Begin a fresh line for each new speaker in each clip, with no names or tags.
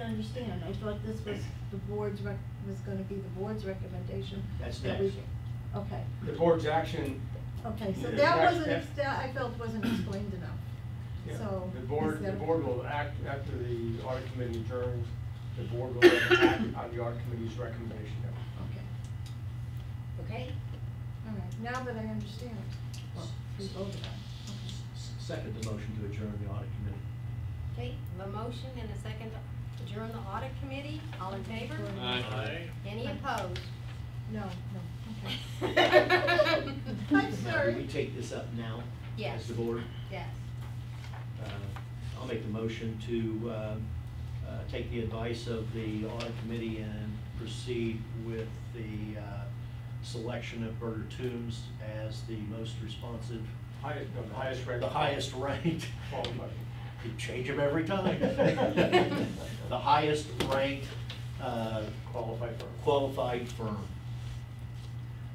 understand, I thought this was the board's rec, was gonna be the board's recommendation.
That's
that we-
next.
Okay,
The board's action.
okay, so
Yeah,
that
that's-
wasn't,
that-
ex- that I felt wasn't explained enough,
yeah,
so.
The board, the
instead of-
board will act, after the audit committee adjourns, the board will act on the audit committee's recommendation.
Okay,
Okay?
all right, now that I understand, well, we voted on it. Okay.
Second the motion to adjourn the audit committee.
Okay, a motion and a second to adjourn the audit committee, all in favor?
Aye.
Any opposed?
No, no, okay. I'm
Now, do we
sorry.
take this up now?
Yes.
As the board?
Yes.
Uh, I'll make the motion to um, uh, take the advice of the audit committee and proceed with the uh, selection of Berger Toombs as the most responsive.
Highest, no, the highest ranked.
The highest ranked.
Qualified.
You change them every time. The highest ranked uh,
Qualified firm.
qualified firm.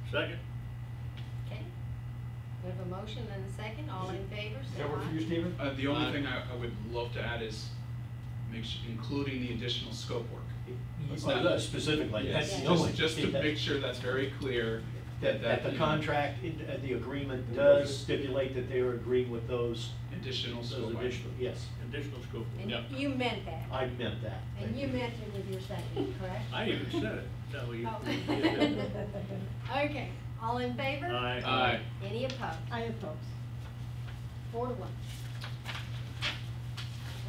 Second?
Okay. We have a motion and a second, all in favor?
Does
say
that work for you,
aye.
Stephen?
Uh, the only
Uh,
thing I, I would love to add is, make su- including the additional scope work. Let's
Oh,
not-
that Specifically,
Yes,
that's the
Yeah.
only.
just, just to make sure that's very clear.
That, that
you
the
know,
contract, in- uh, the agreement does stipulate that they are agreeing with those.
Additional
those
scope items.
additional- Yes,
Additional scope. Yep.
And you meant that.
I meant that.
And
Thank
you meant it with your second, correct?
I even said it. No, you.
Oh.
you did it.
Okay, all in favor?
Aye.
Aye.
Any opposed?
I oppose.
Four to one.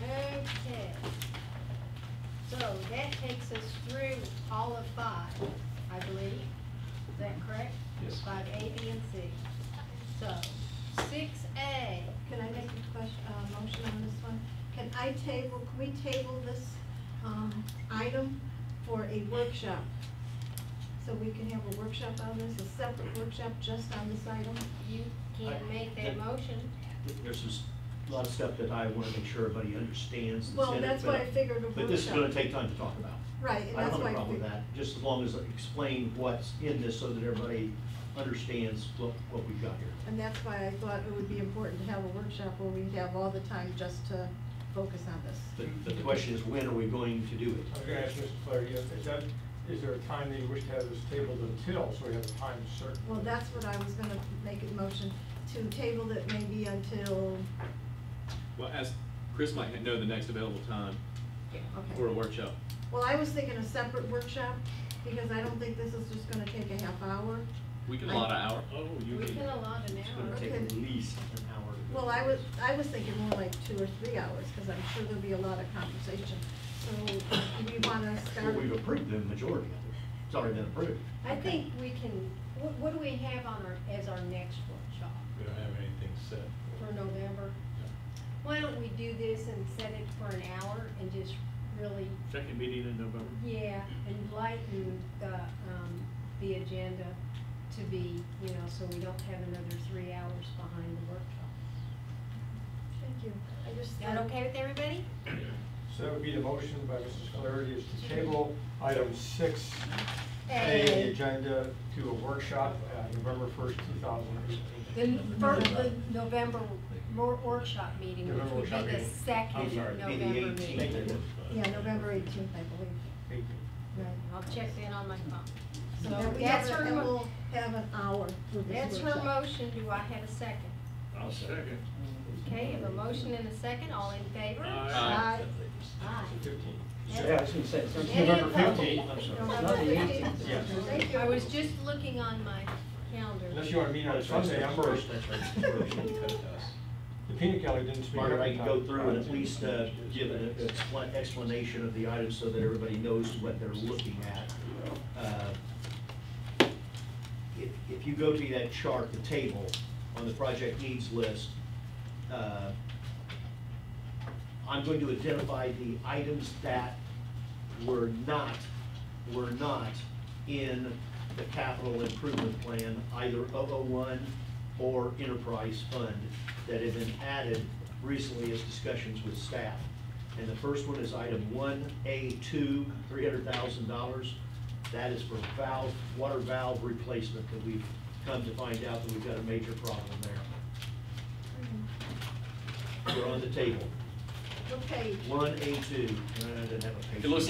Okay. So that takes us through all of five, I believe. Is that correct?
Yes.
Five A, B, and C. So, six A,
Can I make a question, uh motion on this one? Can I table, can we table this, um, item for a workshop? So we can have a workshop on this, a separate workshop just on this item?
you can't
I-
make that
that-
motion.
you. There's some, s- a lot of stuff that I want to make sure everybody understands. that's
Well,
in it,
that's
but-
why I figured a
But this is
workshop.
going to take time to talk about.
Right, and
I
that's
don't have
why.
a problem
we-
with that, just as long as I explain what's in this so that everybody understands what, what we've got here.
And that's why I thought it would be important to have a workshop where we have all the time just to focus on this.
The, the question is, when are we going to do
I
it?
was gonna ask Mr. Flaherty, is is that, is there a time that you wish to have this tabled until, so we have a time certain?
Well, that's what I was gonna make a motion to table it maybe until,
Well, as Chris might know the next available time
okay.
for a workshop.
Well, I was thinking a separate workshop, because I don't think this is just gonna take a half hour.
We can allot an hour.
Oh, you
We
can.
can allow an
It's
hour.
going to take at
Okay.
least an hour. to do
Well, I
this.
was, I was thinking more like two or three hours, because I'm sure there'll be a lot of conversation. So, do we wanna
Well,
start?
we've approved the majority of it. It's already been approved.
I
Okay.
think we can, what, what do we have on our, as our next workshop?
We don't have anything set.
for November. Why don't we do this and set it for an hour and just really,
Second meeting in November.
yeah, and lighten the, um, the agenda to be, you know, so we don't have another three hours behind the workshop.
Thank you. I just.
Is that okay with everybody?
So that would be the motion by Mrs. Flaherty, is to table item six A,
A.
the agenda to a workshop, uh, November first, two thousand
The,
eighteen.
n- for the November wor- workshop meeting,
November
which would
workshop
be the
meeting.
second
I'm sorry,
It'd
November
be
meeting.
the 18th.
Yeah, November eighteenth, I believe. Right.
I'll check in on my phone.
So
So
then we have,
that's
a-
her
then
mo-
we'll have an hour for this
That's
workshop.
her motion, do I have a second?
I'll second.
Okay, I have a motion and a second, all in favor?
Aye.
Ah,
Aye.
Fifteen.
Yeah,
was going to say, it's
Any November opposed?
15th, I'm sorry.
November fifteenth.
Yes.
Thank you. I was just looking on my calendar.
Unless you want to meet on Sunday, I'm first.
That's right, that's right.
The peanut gallery didn't speak up.
Mark, I
in
can
time.
go through and at least uh, give an expla- explanation of the item so that everybody knows what they're looking at. Uh, If, if you go to that chart, the table, on the project needs list, uh, I'm going to identify the items that were not, were not in the capital improvement plan, either 001 or enterprise fund, that have been added recently as discussions with staff. And the first one is item 1A2, $300,000. That is for valve, water valve replacement, that we've come to find out that we've got a major problem there. We're on the table.
Okay,
One A two, and I didn't have a It looks